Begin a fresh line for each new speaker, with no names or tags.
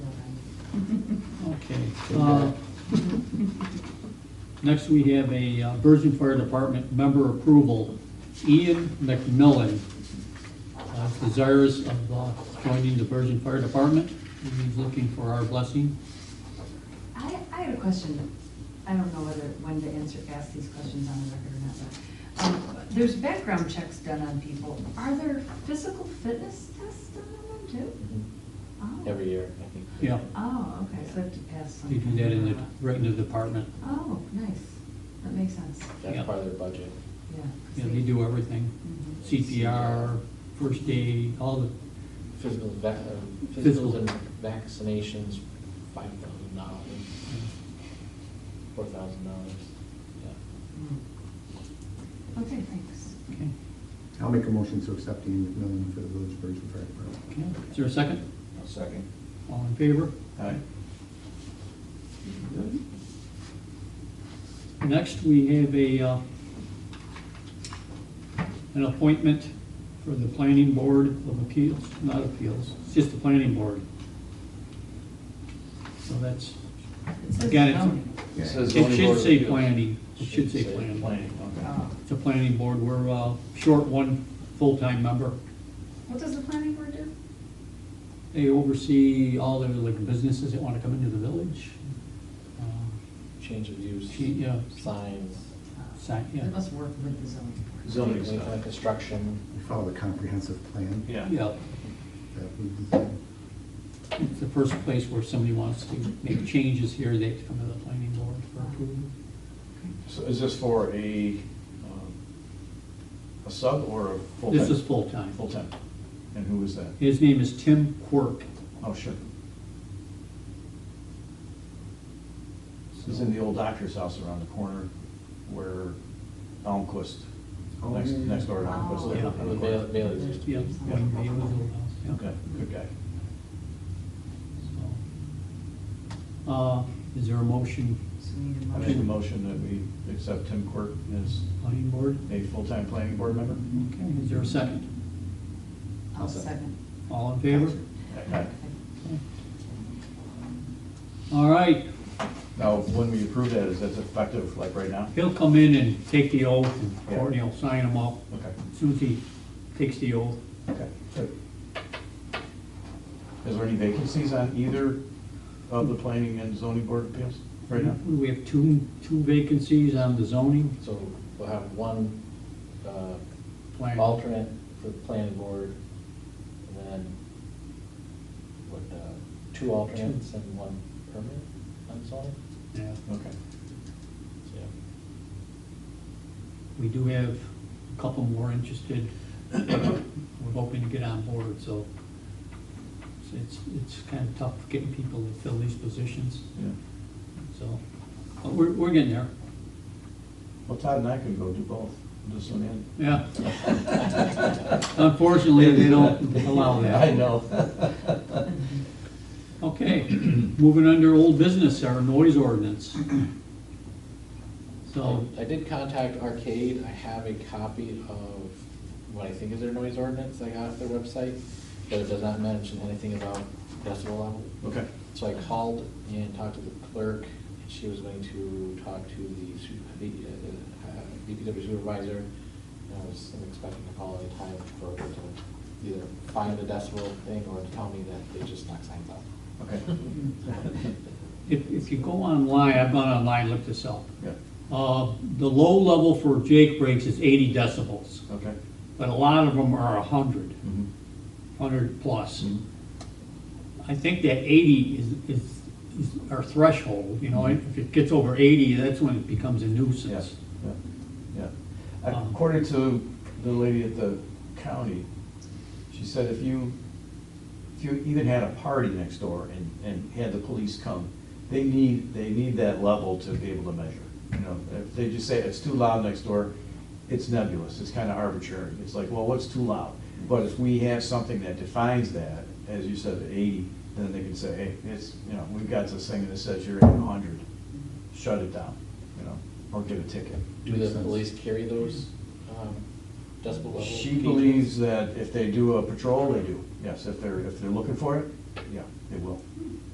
Okay.
Uh, Next, we have a uh, Bergen Fire Department member approval, Ian McMillan, uh, desirous of uh, joining the Bergen Fire Department. He's looking for our blessing.
I, I had a question. I don't know whether, when to answer, ask these questions on the record or not, but, um, there's background checks done on people. Are there physical fitness tests done on them too? Oh.
Every year, I think.
Yeah,
Oh, okay, so I have to pass some.
they do that in the, right in the department.
Oh, nice. That makes sense,
Yeah.
That's part of their budget.
yeah. 'cause
Yeah, they do everything,
Mhm.
CPR, first aid, all the,
Physical vac, um,
Physical.
physicals and vaccinations, five thousand dollars, four thousand dollars.
Mm. Okay, thanks.
okay.
I'll make a motion to accept Ian McMillan for the Village of Virgin Fire Department.
okay. Is there a second?
I'll second.
All in favor?
Aye.
Next, we have a, uh, an appointment for the Planning Board of Appeals, not appeals, it's just the Planning Board. So that's,
It says
Again, it's-
zoning.
Yeah.
Says- The
it
zoning board
should
of
say
appeals.
planning, it should say planning.
Planning, okay.
Oh.
It's a planning board, we're uh, short one full-time member.
What does the planning board do?
They oversee all the like businesses that want to come into the village. Uh,
Change of
she-
use,
Yeah,
signs,
sign-
It
yeah,
must work with the zoning board.
Zoning
like, uh,
stuff.
construction.
We follow the comprehensive plan
Yeah.
yeah.
that we designed.
It's the first place where somebody wants to make changes here, they have to come to the planning board for approval.
So is this for a, um, a sub or a full-time?
This is full-time.
Full-time. And who is that?
His name is Tim Quirk.
Oh, sure. This is in the old doctor's house around the corner where Almquist,
Oh,
next,
yeah, yeah.
next door to Almquist. lived
Yeah.
around
The
the corner.
Bail- Bailey's used to
Yeah,
be.
one day it was old house, yeah.
Okay, good guy.
So, Uh, is there a motion,
So we need a
I make a
motion.
motion that we accept Tim Quirk as
planning board?
a full-time planning board member.
Okay, is there a second?
I'll second.
All in favor?
Aye.
All right,
Now, when we approve that, is that effective like right now?
he'll come in and take the oath, and
Yeah.
Courtney will sign him up.
Okay,
As soon as he takes the oath,
okay, good. Is there any vacancies on either of the planning and zoning board appeals right now?
we have two, two vacancies on the zoning
So we'll have one uh,
plan.
alternate for the planning board, and then, what, uh, two alternates and one permanent on zoning?
Yeah.
Okay.
Yeah.
We do have a couple more interested. uh, We're hoping to get on board, so it's, it's kind of tough getting people to fill these positions,
Yeah.
so. But we're, we're getting there,
Well, Todd and I can go do both, this one and.
yeah. Unfortunately, they don't allow
I
that.
know.
Okay, moving under old business, our noise ordinance. So,
I did contact Arcade, I have a copy of what I think is their noise ordinance I got off their website, but it does not mention anything about decibel level.
Okay,
So I called and talked to the clerk, and she was going to talk to the su- the, uh, uh, DPW supervisor. And I was expecting a call anytime for her to either find the decibel thing or tell me that they just knocked signs out.
okay,
if, if you go online, I've gone online, looked this up.
yeah,
Uh, the low level for Jake brakes is eighty decibels.
okay.
but a lot of them are 100,
Mhm.
100 plus.
Mhm.
I think that 80 is, is, is our threshold, you know, if it gets over 80, that's when it becomes a
Yeah,
nuisance.
yeah, yeah.
Um,
According to the lady at the county, she said if you, if you even had a party next door and, and had the police come, they need, they need that level to be able to measure. You know, if they just say it's too loud next door, it's nebulous, it's kind of arbitrary. It's like, well, what's too loud? But if we have something that defines that, as you said, eighty, then they can say, hey, it's, you know, we've got this thing that says you're at hundred, shut it down, you know, or get a ticket.
Do
Makes
the
sense.
police carry those um, decibel level?
She
gauges?
believes that if they do a patrol, they do, yes, if they're, if they're looking for it, yeah, they will.